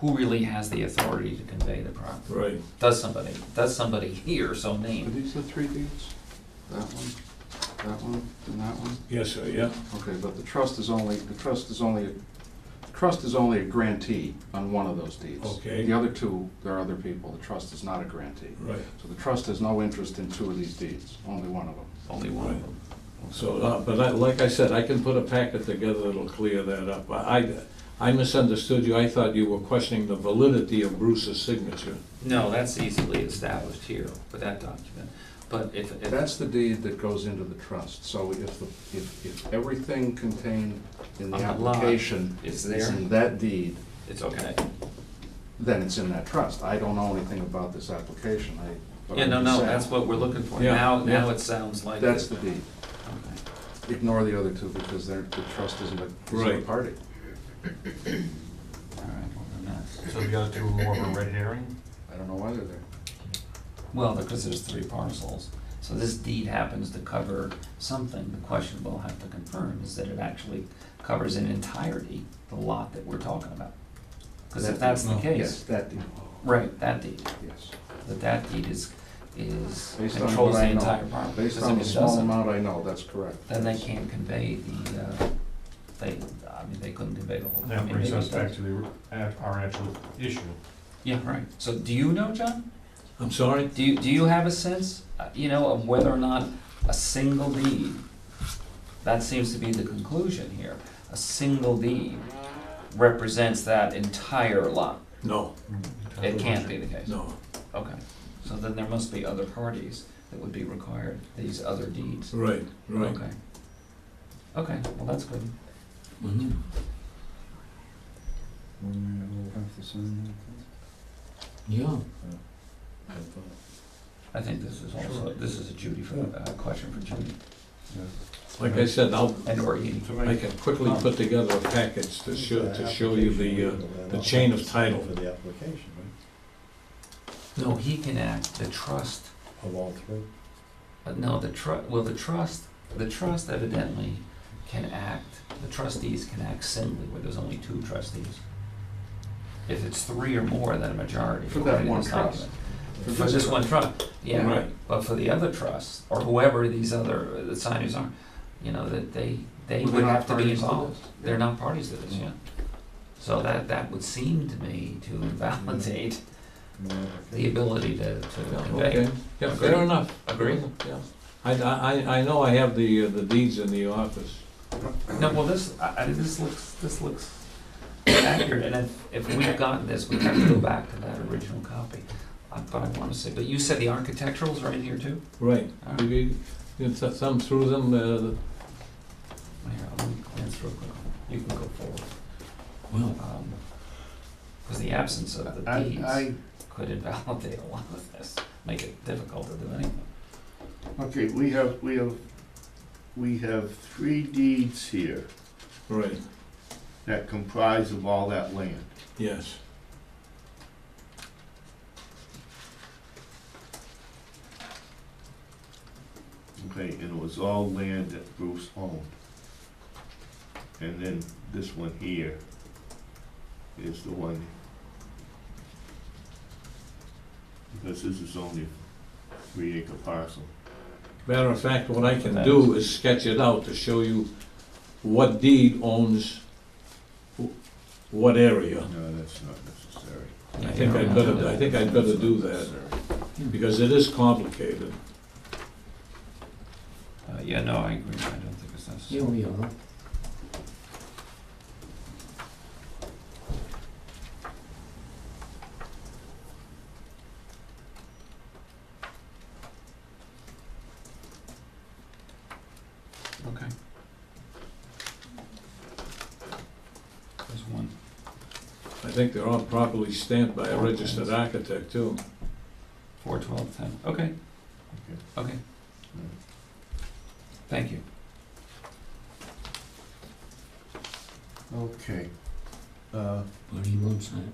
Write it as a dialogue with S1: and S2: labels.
S1: who really has the authority to convey the property?
S2: Right.
S1: Does somebody, does somebody here so
S3: Are
S1: named?
S3: these the three deeds? That one, that one, and that one?
S2: Yes, sir, yeah.
S3: Okay, but the trust is only, the trust is only, trust is only a grantee on one of those deeds.
S2: Okay.
S3: The other two, there are other people. The trust is not a grantee.
S2: Right.
S3: So the trust has no interest in two of these deeds, only one of them.
S1: Only one of them.
S2: So, uh, but I- like I said, I can put a packet together that'll clear that up. I, I misunderstood you. I thought you were questioning the validity of Bruce's signature.
S1: No, that's easily established here with that document, but if, if.
S3: That's the deed that goes into the trust. So if, the if, if everything contained in the
S1: On the lot
S3: application
S1: is
S3: is
S1: there?
S3: in that deed,
S1: It's okay.
S3: then it's in that trust. I don't know anything about this application, I. but
S1: Yeah,
S3: I'm
S1: no,
S3: just
S1: no,
S3: saying,
S1: that's what we're looking for.
S2: Yeah,
S1: Now, now
S2: yeah.
S1: it sounds like.
S3: That's the
S1: it.
S3: deed.
S1: Okay.
S3: Ignore the other two because they're, the trust isn't a, isn't a
S2: Right.
S3: party.
S1: All right, well, then that's-
S4: So the other two are more of a red herring?
S3: I don't know why they're there.
S1: Well, because there's three parcels, so this deed happens to cover something. The question we'll have to confirm is that it actually covers in entirety the lot that we're talking about. Because if that's the
S2: Well,
S3: Yes,
S1: case,
S3: that deed,
S1: right, that deed,
S3: yes.
S1: that that deed is, is,
S3: Based on
S1: controls
S3: what
S1: the
S3: I know,
S1: entire property.
S3: Based
S1: 'Cause
S3: on
S1: if
S3: the
S1: it
S3: small
S1: doesn't,
S3: amount I know, that's correct.
S1: Then they can't convey the, uh, they, I mean, they couldn't convey the whole. I
S4: That
S1: mean,
S4: brings
S1: maybe
S4: us
S1: it does.
S4: back to the, at our actual issue.
S1: Yeah, right. So do you know, John?
S2: I'm sorry?
S1: Do you, do you have a sense, uh, you know, of whether or not a single deed, that seems to be the conclusion here, a single deed represents that entire lot?
S2: No,
S1: It can't be the case?
S2: no.
S1: Okay. So then there must be other parties that would be required, these other deeds?
S2: Right, right.
S1: Okay. Okay, well, that's good.
S5: Mm-hmm.
S2: Mhm. Yeah.
S1: I think this is also, this is a Judy, for- a question for Judy,
S2: Like I said, I'll,
S1: and or Edie.
S2: I can quickly put together a package to show, to show you the, uh, the chain of title.
S5: For the application,
S1: No, he can act, the trust
S5: right, of all three.
S1: But no, the tru, well, the trust, the trust evidently can act, the trustees can act singly where there's only two trustees. If it's three or more, then a majority.
S3: For that
S1: according to
S3: one
S1: this
S3: trust.
S1: document. For this one trust, yeah,
S2: Right.
S1: right, but for the other trust, or whoever these other, the signers are, you know, that they, they
S3: Well, they're
S1: would
S3: not
S1: have to be
S3: parties to this.
S1: involved. They're not parties to this, yeah. So that, that would seem to me to invalidate the ability to, to
S2: Yeah,
S1: convey.
S2: Okay, yeah, fair enough.
S1: Agree?
S2: Yeah. I, I, I know I have the, uh, the deeds in the office.
S1: No, well, this, I, I, this looks, this looks accurate, and if, if we've gotten this, we have to go back to that original copy. I thought I wanna say, but you said the architecturals are in here too?
S2: Right.
S1: All right.
S2: You, you- you th- thumb through them, uh,
S1: Here, I'll let me glance real quick, you can go forward.
S2: well,
S1: Um, Cause the absence of the
S3: I,
S1: deeds
S3: I,
S1: could invalidate a lot of this, make it difficult to do anything.
S6: Okay, we have, we have, we have three deeds here
S2: right,
S6: that comprise of all that land.
S2: yes.
S6: Okay, and it was all land that Bruce owned. And then this one here is the one. Because this is only three acre parcel.
S2: Matter of fact, what I can do is sketch it out to show you what deed owns wh- what area.
S6: No, that's not necessary.
S1: Yeah,
S2: I
S1: you
S2: think
S1: don't
S2: I'd
S1: have
S2: better,
S1: to-
S2: I think I'd better do that,
S6: Necessary.
S2: because it is complicated.
S1: Uh, yeah, no, I agree, I don't think it's necessary.
S5: we are.
S1: Okay. There's one.
S2: I think they're all properly stamped by a registered architect too.
S1: Four, twelve, ten, okay. Okay. Thank you.
S6: Okay. Uh, Uh,
S5: What do you want, Sam?